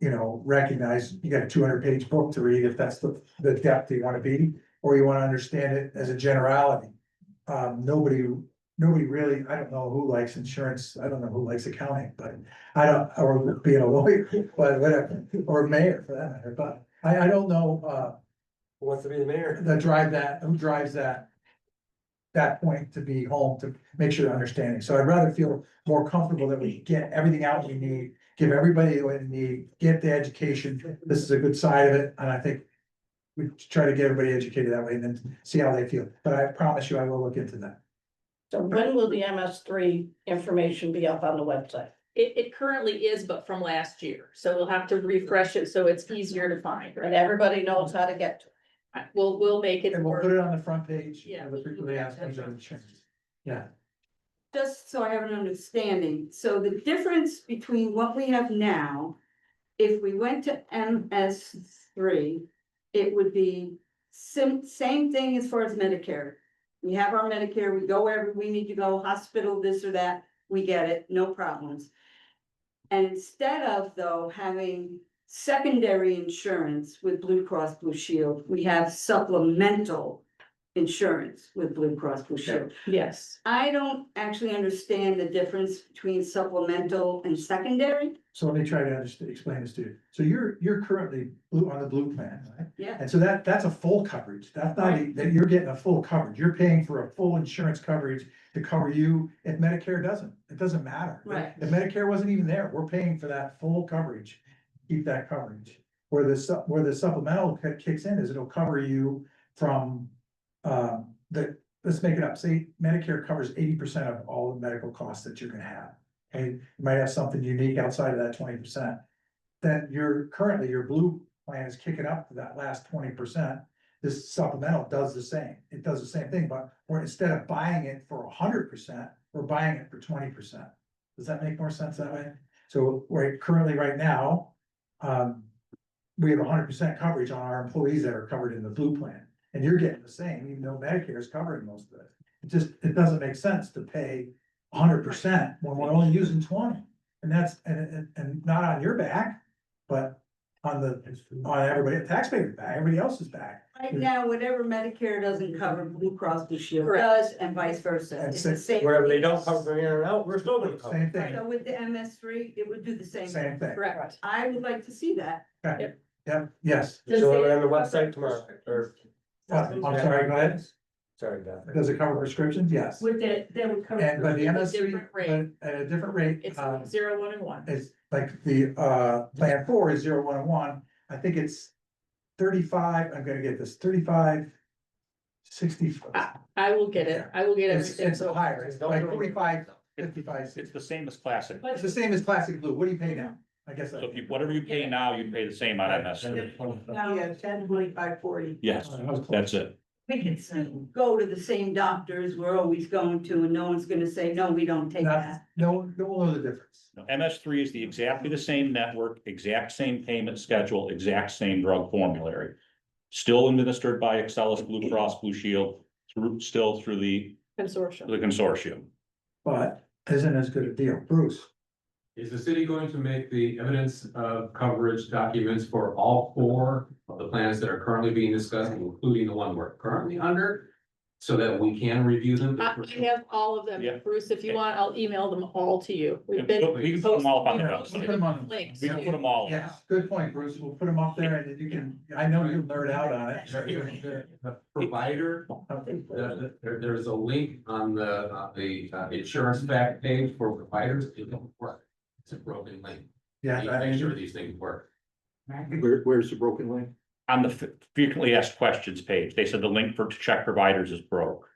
you know, recognize you got a two hundred page book to read if that's the, the depth you wanna be, or you wanna understand it as a generality. Um, nobody, nobody really, I don't know who likes insurance, I don't know who likes accounting, but I don't, or being a lawyer, but whatever, or mayor for that matter, but I, I don't know, uh, Who Wants to be the mayor? that drive that, who drives that. That point to be home to make sure they're understanding, so I'd rather feel more comfortable that we get everything out we need. Give everybody what they need, get the education, this is a good side of it, and I think. We try to get everybody educated that way and then see how they feel, but I promise you, I will look into that. So when will the MS three information be up on the website? It, it currently is, but from last year, so we'll have to refresh it, so it's easier to find, And right? everybody knows how to get to it. I- We'll, we'll make it And we'll work. put it on the front page. Yeah. of The frequently asked questions on insurance. Yeah, Just so I have an understanding, so the difference between what we have now. If we went to MS three, it would be sim- same thing as far as Medicare. We have our Medicare, we go wherever we need to go, hospital, this or that, we get it, no problems. And instead of though having secondary insurance with Blue Cross Blue Shield, we have supplemental. Insurance with Blue Cross Blue Shield. Yes, I don't actually understand the difference between supplemental and secondary. so let me try to understand, explain this to you. So you're, you're currently blue on the blue plan, right? Yeah. And so that, that's a full coverage. That's not, a- that you're getting a full coverage. You're paying for a full insurance coverage to cover you if Medicare doesn't. It doesn't matter. Right. If Medicare wasn't even there, we're paying for that full coverage. Keep that coverage. Where the, sup- where the supplemental ki- kicks in is it'll cover you from, um, the, let's make it up. Say Medicare covers eighty percent of all the medical costs that you're gonna have. And you might have something unique outside of that twenty percent. Then you're, currently your blue plan is kicking up to that last twenty percent. This supplemental does the same. It does the same thing, but we're instead of buying it for hundred percent, we're buying it for twenty percent. Does that make more sense that way? So we're currently right now, um, we have hundred percent coverage on our employees that are covered in the blue plan. And you're getting the same, even though Medicare is covering most of it. It just, it doesn't make sense to pay hundred percent when we're only using twenty. And that's, and, and, and not on your back, but on the, on everybody, taxpayer's back, everybody else's back. Right now, whatever Medicare doesn't cover, Blue Cross Blue Shield Correct. does, and vice versa. It's the same. Wherever they don't cover from here on out, we're still gonna cover. Same thing, So with the MS three, it would do the same. same thing. correct. I would like to see that. Yep, yes. So we're on the website tomorrow, or. Uh, I'm sorry, go ahead. Sorry, Beth. Does it cover prescriptions? Yes. With that, that would cover. And but the At a MSC, different rate. but at a different rate, It's um, zero, one, and one. is like the uh plan four is zero one oh one. I think it's thirty-five, I'm gonna get this, thirty-five. Sixty. Ah, I will get it, I will get It's everything, it's so. higher, it's like forty-five, fifty-five. It's the same as classic, It's the same as classic blue. What do you pay now? I guess. so I- if you, whatever you pay now, you pay the same on MS. Yeah, ten twenty-five forty. Yes, that's it. We can soon go to the same doctors we're always going to, and no one's gonna say, no, we don't take Not, that. no, no one knows the difference. MS three is the exactly the same network, exact same payment schedule, exact same drug formulary. Still administered by Excellus Blue Cross Blue Shield, through, still through the, Consortium. the consortium. But isn't as good a deal. Bruce, Is the city going to make the evidence of coverage documents for all four of the plans that are currently being discussed, including the one we're currently under? So that we can review them? I, I have all of Yeah. them, Bruce, if you want, I'll email them all to you. We've been. We can put them all up on the website. Links. We can put them all. yes, good point, Bruce. We'll put them up there and then you can, I know you'll nerd out on it. The the provider, the- the- there, there's a link on the, on the uh, insurance back page for providers, it don't work. It's a broken link. Yeah. You I- Make sure these things work. Where, where's the broken link? On the f- frequently asked questions page, they said the link for to check providers is broke.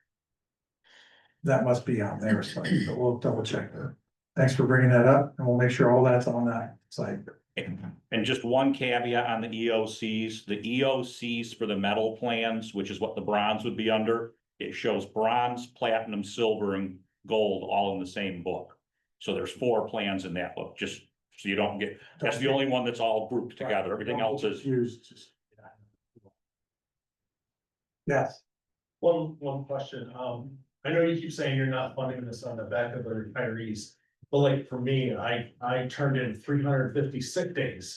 That must be on their site, but we'll double check that. Thanks for bringing that up and we'll make sure all that's on that site. And just one caveat on the EOCs, the EOCs for the metal plans, which is what the bronze would be under. It shows bronze, platinum, silver and gold all in the same book. So there's four plans in that book, just so you don't get, that's the only one that's all grouped together. Everything else is Used. just- Yes, One, one question, um, I know you keep saying you're not funding this on the back of the retirees, but like for me, I, I turned in three hundred and fifty sick days.